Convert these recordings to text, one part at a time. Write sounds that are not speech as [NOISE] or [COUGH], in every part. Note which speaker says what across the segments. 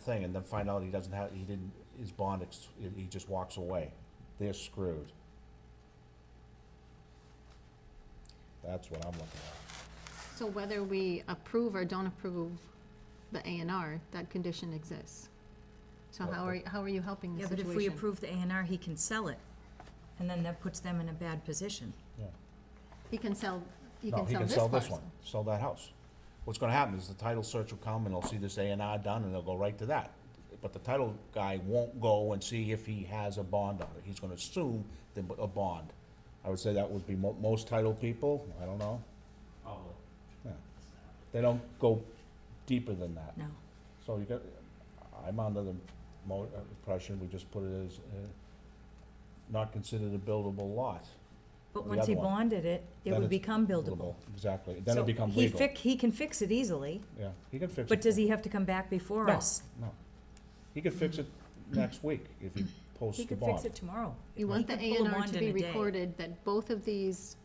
Speaker 1: thing and then find out he doesn't have, he didn't, his bond, ex- he just walks away. They're screwed. That's what I'm looking at.
Speaker 2: So whether we approve or don't approve the A and R, that condition exists. So how are, how are you helping the
Speaker 3: Yeah, but
Speaker 2: situation?
Speaker 3: if we approve the A and R, he can sell it, and then that puts them in a bad position.
Speaker 2: He can sell, he
Speaker 1: No,
Speaker 2: can
Speaker 1: he
Speaker 2: sell
Speaker 1: can
Speaker 2: this
Speaker 1: sell
Speaker 2: parcel.
Speaker 1: this one, sell that house. What's gonna happen is the title search will come and they'll see this A and R done and they'll go right to that. But the title guy won't go and see if he has a bond on it. He's gonna assume the, a bond. I would say that would be mo- most title people, I don't know.
Speaker 4: Probably.
Speaker 1: Yeah. They don't go deeper than that.
Speaker 3: No.
Speaker 1: So you got, I'm under the mo- uh, impression we just put it as, uh, not considered a buildable lot.
Speaker 3: But
Speaker 1: The
Speaker 3: once he
Speaker 1: other one.
Speaker 3: bonded it, it
Speaker 1: Then
Speaker 3: would
Speaker 1: it's
Speaker 3: become buildable.
Speaker 1: Exactly, then
Speaker 3: So
Speaker 1: it becomes
Speaker 3: he
Speaker 1: legal.
Speaker 3: fic- He can fix it easily,
Speaker 1: Yeah, he can fix it.
Speaker 3: but does he have to come back before
Speaker 1: No.
Speaker 3: us?
Speaker 1: No, he could fix it next week if
Speaker 3: [CLEARS THROAT]
Speaker 1: he posts
Speaker 3: He
Speaker 1: the
Speaker 3: could fix
Speaker 1: bond.
Speaker 3: it tomorrow.
Speaker 2: You want the
Speaker 3: could
Speaker 2: A
Speaker 3: pull a
Speaker 2: and R
Speaker 3: bond
Speaker 2: to
Speaker 3: in
Speaker 2: be
Speaker 3: a day.
Speaker 2: recorded that both of these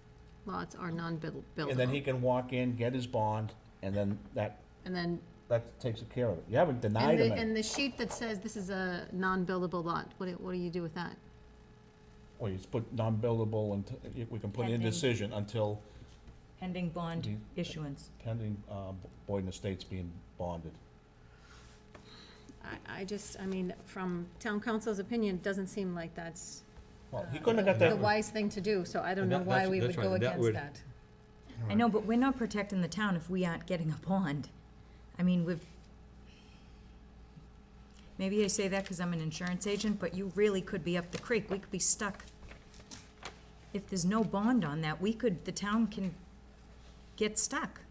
Speaker 2: lots are non-buildable.
Speaker 1: And then he can walk in, get his bond, and then that,
Speaker 2: And then,
Speaker 1: that takes care of it. You haven't
Speaker 2: and
Speaker 1: denied
Speaker 2: the,
Speaker 1: him it.
Speaker 2: and the sheet that says this is a non-buildable lot, what do, what do you do with that?
Speaker 1: Well, you just put non-buildable and t- we can put
Speaker 3: Pending.
Speaker 1: indecision until
Speaker 3: Pending bond
Speaker 1: Do-
Speaker 3: issuance.
Speaker 1: pending, uh, Boyden Estates being bonded.
Speaker 2: I, I just, I mean, from town council's opinion, doesn't seem like that's uh,
Speaker 1: Well,
Speaker 3: Uh,
Speaker 1: he couldn't have got
Speaker 2: the
Speaker 1: that.
Speaker 2: wise thing to do, so I don't
Speaker 4: And
Speaker 2: know
Speaker 4: that-
Speaker 2: why
Speaker 4: that's-
Speaker 2: we
Speaker 4: that's
Speaker 2: would
Speaker 4: right,
Speaker 2: go
Speaker 4: and that
Speaker 2: against
Speaker 4: would-
Speaker 2: that.
Speaker 3: I know, but we're not protecting the town if we aren't getting a bond. I mean, we've, maybe I say that because I'm an insurance agent, but you really could be up the creek. We could be stuck. If there's no bond on that, we could, the town can get stuck.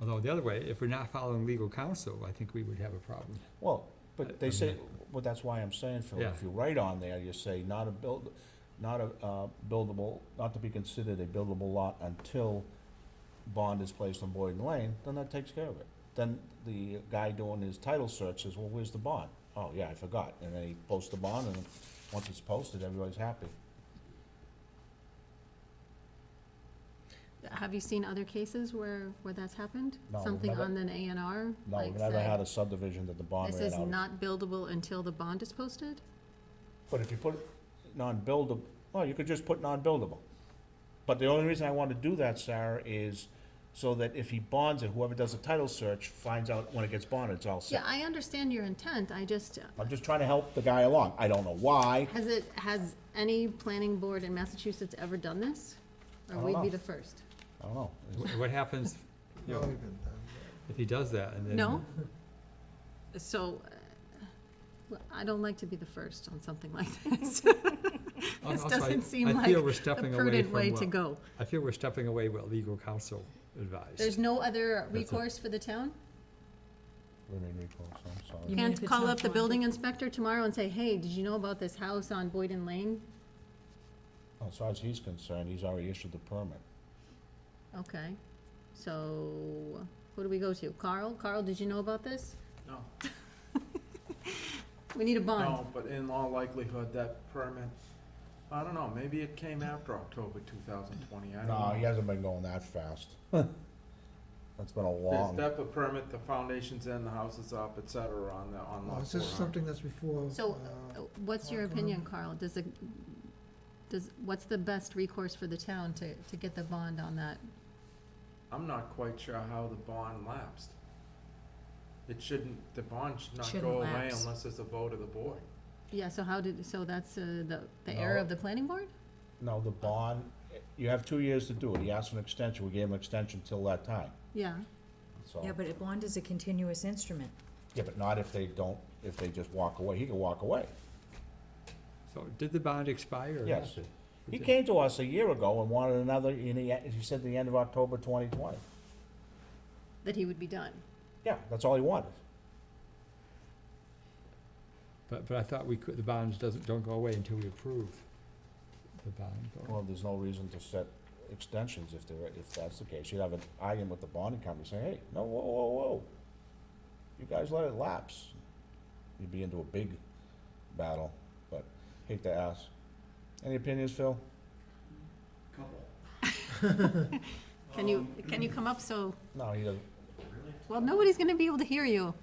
Speaker 4: Although the other way, if we're not following legal counsel, I think we would have a problem.
Speaker 1: Well, but they say, well, that's why I'm saying, Phil,
Speaker 4: Yeah.
Speaker 1: if you write on there, you say not a build, not a, uh, buildable, not to be considered a buildable lot until bond is placed on Boyden Lane, then that takes care of it. Then the guy doing his title search says, well, where's the bond? Oh, yeah, I forgot. And then he posts the bond, and once it's posted, everybody's happy.
Speaker 2: Have you seen other cases where, where that's happened?
Speaker 1: No, we've
Speaker 2: Something
Speaker 1: never-
Speaker 2: on an A and R?
Speaker 1: No,
Speaker 2: like
Speaker 1: we've never
Speaker 2: say,
Speaker 1: had a subdivision that the bond
Speaker 2: This
Speaker 1: ran
Speaker 2: is
Speaker 1: out.
Speaker 2: not buildable until the bond is posted?
Speaker 1: But if you put non-buildable, well, you could just put non-buildable. But the only reason I want to do that, Sarah, is so that if he bonds it, whoever does the title search finds out when it gets bonded, it's all
Speaker 2: Yeah,
Speaker 1: set.
Speaker 2: I understand your intent, I just,
Speaker 1: I'm just trying to help the guy along. I don't know why.
Speaker 2: has it, has any planning board in Massachusetts ever done this? Or
Speaker 1: don't
Speaker 2: we'd be
Speaker 1: know.
Speaker 2: the first?
Speaker 1: I don't know. It's-
Speaker 4: Wh- What happens, you know, if he does that and then?
Speaker 1: [LAUGHS]
Speaker 2: No? So, uh, well, I don't like to be the first on something like [LAUGHS] this.
Speaker 4: Al-
Speaker 2: This
Speaker 4: also, I-
Speaker 2: doesn't seem
Speaker 4: I feel
Speaker 2: like
Speaker 4: we're
Speaker 2: The
Speaker 4: stepping away
Speaker 2: prudent
Speaker 4: from
Speaker 2: way to
Speaker 4: what,
Speaker 2: go.
Speaker 4: I feel we're stepping away what legal counsel advised.
Speaker 2: There's no other
Speaker 4: it.
Speaker 2: recourse for the town?
Speaker 1: we made recourse, I'm sorry.
Speaker 3: You mean if
Speaker 2: Can't
Speaker 3: it's
Speaker 2: call
Speaker 3: not
Speaker 2: up the
Speaker 3: bonded?
Speaker 2: building inspector tomorrow and say, hey, did you know about this house on Boyden Lane?
Speaker 1: As far as he's concerned, he's already issued the permit.
Speaker 2: Okay, so who do we go to? Carl? Carl, did you know about this?
Speaker 5: No,
Speaker 2: We need a bond.
Speaker 5: no, but in all likelihood, that permit, I don't know, maybe it came after October two thousand twenty, I don't know.
Speaker 1: No, he hasn't been going that fast. [LAUGHS] That's been a
Speaker 5: There's
Speaker 1: long,
Speaker 5: DEPA permit, the foundation's in, the house is up, et cetera, on the, on
Speaker 6: Well,
Speaker 5: lot
Speaker 6: Oh, Is this
Speaker 5: four hundred.
Speaker 6: something that's before?
Speaker 2: So,
Speaker 6: uh,
Speaker 2: uh, what's your
Speaker 6: Carl, go
Speaker 2: opinion,
Speaker 6: ahead.
Speaker 2: Carl? Does it, does, what's the best recourse for the town to, to get the bond on that?
Speaker 5: I'm not quite sure how the bond lapsed. It shouldn't, the bond should not
Speaker 3: Shouldn't
Speaker 5: go away
Speaker 3: lapse.
Speaker 5: unless there's a vote of the board.
Speaker 2: Yeah, so how did, so that's uh, the, the error
Speaker 1: No.
Speaker 2: of the planning board?
Speaker 1: no, the bond, you have two years to do it. He asked for an extension, we gave him an extension till that time,
Speaker 2: Yeah,
Speaker 1: so.
Speaker 3: Yeah, but a bond is a continuous instrument.
Speaker 1: Yeah, but not if they don't, if they just walk away. He can walk away.
Speaker 4: So did the bond expire or
Speaker 1: Yes.
Speaker 4: not?
Speaker 1: He came to us a year ago and wanted another, and he, he said the end of October twenty twenty.
Speaker 2: that he would be done.
Speaker 1: Yeah, that's all he wanted.
Speaker 4: But, but I thought we could, the bonds doesn't, don't go away until we approve the bond.
Speaker 1: Well, there's no reason to set extensions if there, if that's the case. You'd have an argument with the bonding company saying, hey, no, whoa, whoa, whoa. You guys let it lapse. You'd be into a big battle, but hate to ask. Any opinions, Phil?
Speaker 7: Couple.
Speaker 2: Can you, can you come up so,
Speaker 1: No, he doesn't.
Speaker 2: well, nobody's gonna be able to hear you.